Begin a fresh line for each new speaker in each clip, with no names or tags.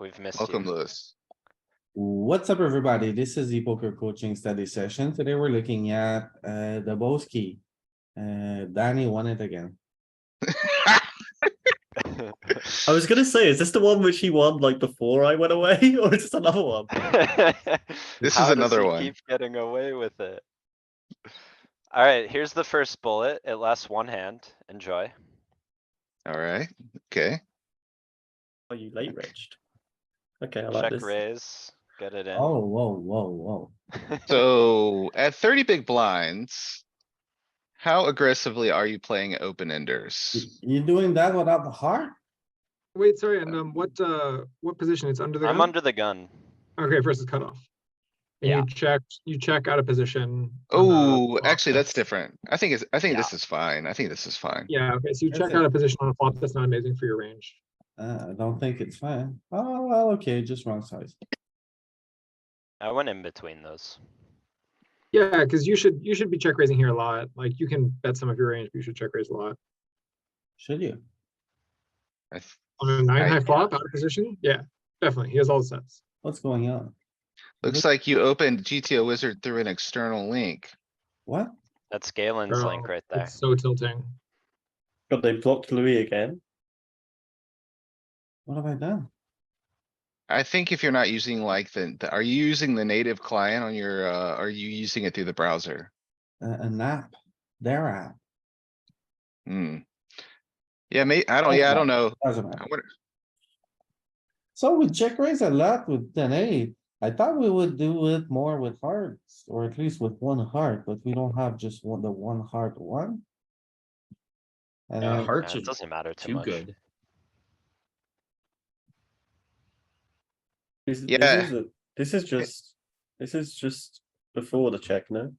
We've missed
Welcome,
you.
Lewis.
What's up, everybody? This is the poker coaching study session. Today we're looking at uh the Boski. Uh, Danny won it again.
I was gonna say, is this the one which he won like before I went away, or is this another one?
This is
How does
another
he
one.
Keep getting away with it. Alright, here's the first bullet. It lasts one hand. Enjoy.
Alright, okay.
Are you late, Rich? Okay, I like
Check
this.
raise, get it in.
Oh, whoa, whoa, whoa.
So at thirty big blinds. How aggressively are you playing open enders?
You doing that without the heart?
Wait, sorry, and um, what, uh, what position? It's under the
I'm
gun?
under the gun.
Okay, versus cutoff. And
Yeah.
you check, you check out of position. on the
Oh,
flop
actually, that's
Uh, that's-
different. I think it's, I think
Yeah.
this is fine. I think this is fine.
Yeah, okay, so you
That's
check
it.
out a position on a flop that's not amazing for your range.
Uh, I don't think it's fine. Oh, well, okay, just wrong size.
I went in between those.
Yeah, because you should, you should be check raising here a lot. Like, you can bet some of your range, but you should check raise a lot.
Should you?
I th-
On a nine
I-
high flop out of position? Yeah, definitely. He has all the sets.
What's going on?
Looks like you opened GTO wizard through an external link.
What?
That's Galen's
Bro,
link right there.
It's so tilting.
God, they blocked Louis again.
What have I done?
I think if you're not using like the, the- are you using the native client on your, uh, are you using it through the browser?
A an app, their app,
Hmm. Yeah, may, I don't,
Oh.
yeah, I don't know.
doesn't matter.
I wonder,
So we check raise a lot with ten eight. I thought we would do it more with hearts, or at least with one heart, but we don't have just one, the one heart one. And
Yeah,
then-
Yeah,
hearts are
It doesn't matter too
too
much.
good.
This, this
Yeah.
is a- This is just, this is just before the check, no?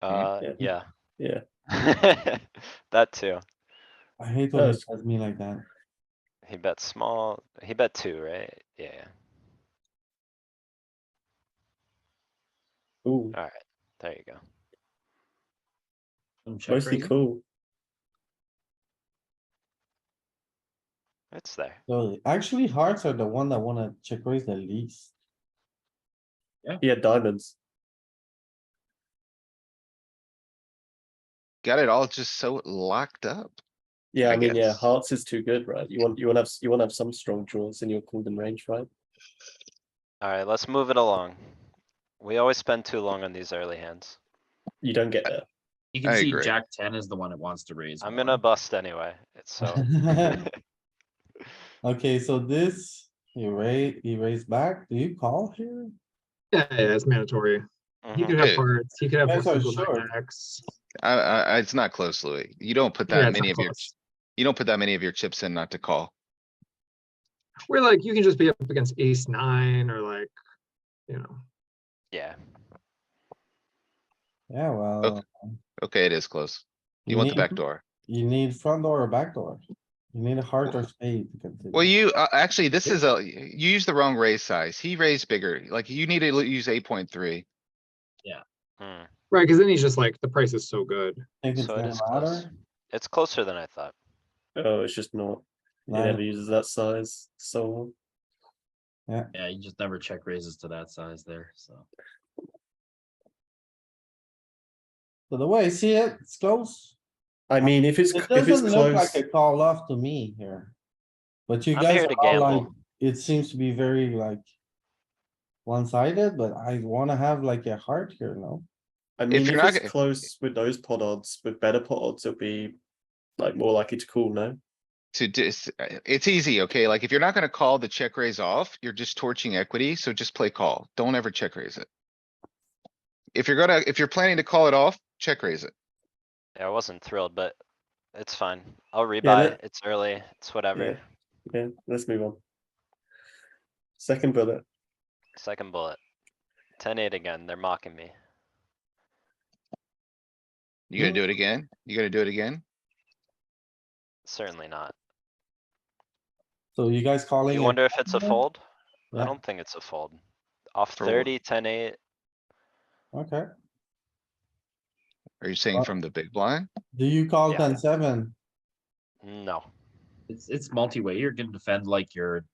Uh, yeah.
Yeah.
That too.
I hate when
Oh,
it
it's-
does me like that.
He bet small. He bet two, right? Yeah,
Ooh,
alright. There you go.
Some check
mostly
raising.
cool.
It's there.
So actually hearts are the one that wanna check raise the least.
Yeah, diamonds.
got it all just so locked up.
Yeah,
I
I mean, yeah,
guess.
hearts is too good, right? You want, you want to have, you want to have some strong draws in your golden range, right?
Alright, let's move it along. We always spend too long on these early hands.
You don't
Uh,
get there.
You can
I
see
agree.
Jack ten is the one that wants to raise.
I'm
more.
gonna bust anyway, it's so.
Okay, so this, you raise, you raise back, do you call here?
Yeah, yeah, it's mandatory. He
Mhm.
could have
Dude.
hearts, he could have
That's
flexible
our
nine
short.
X.
I, I, I- it's not close, Louis. You don't put
Yeah,
that
it's
many
not
of your,
close.
you don't put that many of your chips in not to call.
We're like, you can just be up against ace nine or like, you know.
Yeah,
Yeah, well,
Okay, it is close. Oh, You
You
want the
need-
Mm-hmm.
back door.
you need front door or back door. You need a heart or spade to
Oh.
continue.
Well, you, uh, actually, this is a, you use the wrong raise size. He raised bigger. Like you need to l- use eight point three.
Hmm,
Right, because then he's just like, the price is so good.
Think it's
so it
gonna
is close.
matter?
It's closer than I thought.
Oh, it's just not. He
Nah,
never uses that size, so.
Yeah, you just never check raises to that size there, so.
So the way I see it, it's close.
I mean, if it's,
It
if it's
doesn't look like
close,
a call off to me here. But you
I'm
guys
here to
are all like,
gamble.
it seems to be very like. One sided, but I wanna have like a heart here, no?
I mean, if,
you're not
it's
g-
close with those pot odds, with better pot odds, it'll be like more likely to call. No,
To just, it's easy, okay? Like if you're not gonna call the check raise off, you're just torching equity, so just play call. Don't ever check raise it. If you're gonna, if you're planning to call it off, check raise it.
Yeah, I wasn't thrilled, but it's fine. I'll rebuy,
let-
it's early, it's whatever.
Yeah. yeah, let's move on. Second bullet.
Second bullet. Ten eight again, they're mocking me.
You
Mm-hmm.
gonna
Mm.
do it again? You gonna do it again?
Certainly not.
So you guys calling?
You
it-
wonder if it's a
Yeah.
fold? I
Yeah.
don't think it's a fold. Off
For what?
thirty, ten eight,
Okay,
Are you saying
Uh,
from the big blind?
do you call
Yeah.
ten seven?
no.
It's, it's multi-way. You're gonna defend like your